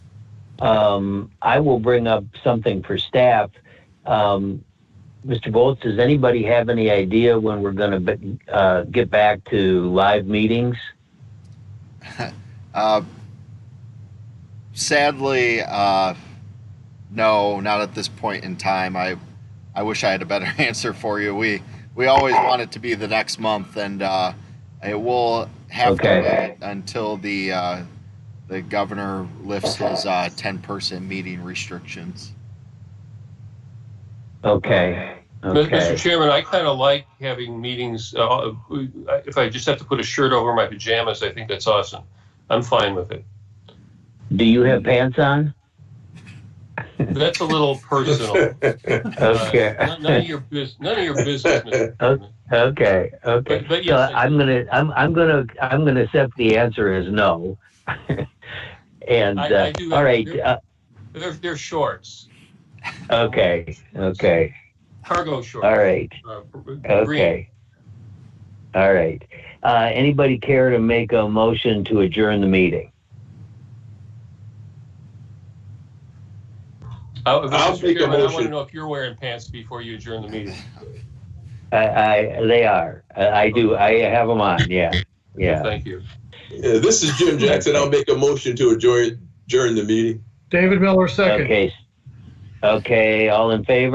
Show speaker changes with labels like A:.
A: Um, I will bring up something for staff. Um, Mr. Bolts, does anybody have any idea when we're going to uh, get back to live meetings?
B: Uh, sadly, uh, no, not at this point in time. I, I wish I had a better answer for you. We, we always want it to be the next month, and uh, it will have
A: Okay.
B: to wait until the, uh, the governor lifts his uh, ten-person meeting restrictions.
A: Okay.
C: Mr.
A: Okay.
C: Chairman, I kind of like having meetings, uh, if I just have to put a shirt over my pajamas, I think that's awesome. I'm fine with it.
A: Do you have pants on?
C: That's a little personal. Uh,
A: Okay.
C: None none of your business, none of your business, Mr. Chairman.
A: Okay. Okay.
C: But, but
A: So
C: yes, I-
A: I'm gonna, I'm, I'm gonna, I'm gonna accept the answer as no. and
C: I-
A: uh,
C: I do-
A: all right. Uh,
C: they're, they're shorts,
A: okay. Okay.
C: cargo shorts.
A: All right.
C: uh, green.
A: Okay. All right. Uh, anybody care to make a motion to adjourn the meeting?
C: Uh, Mr.
D: I'll make a
C: Chairman, I want to
D: motion.
C: know if you're wearing pants before you adjourn the meeting.
A: I, I they are. I, I do. I have them on. Yeah. Yeah.
C: Thank you.
D: Yeah, this is Jim Jackson. I'll make a motion to adjourn, adjourn the meeting.
E: David Miller, second.
A: Okay. Okay. All in favor?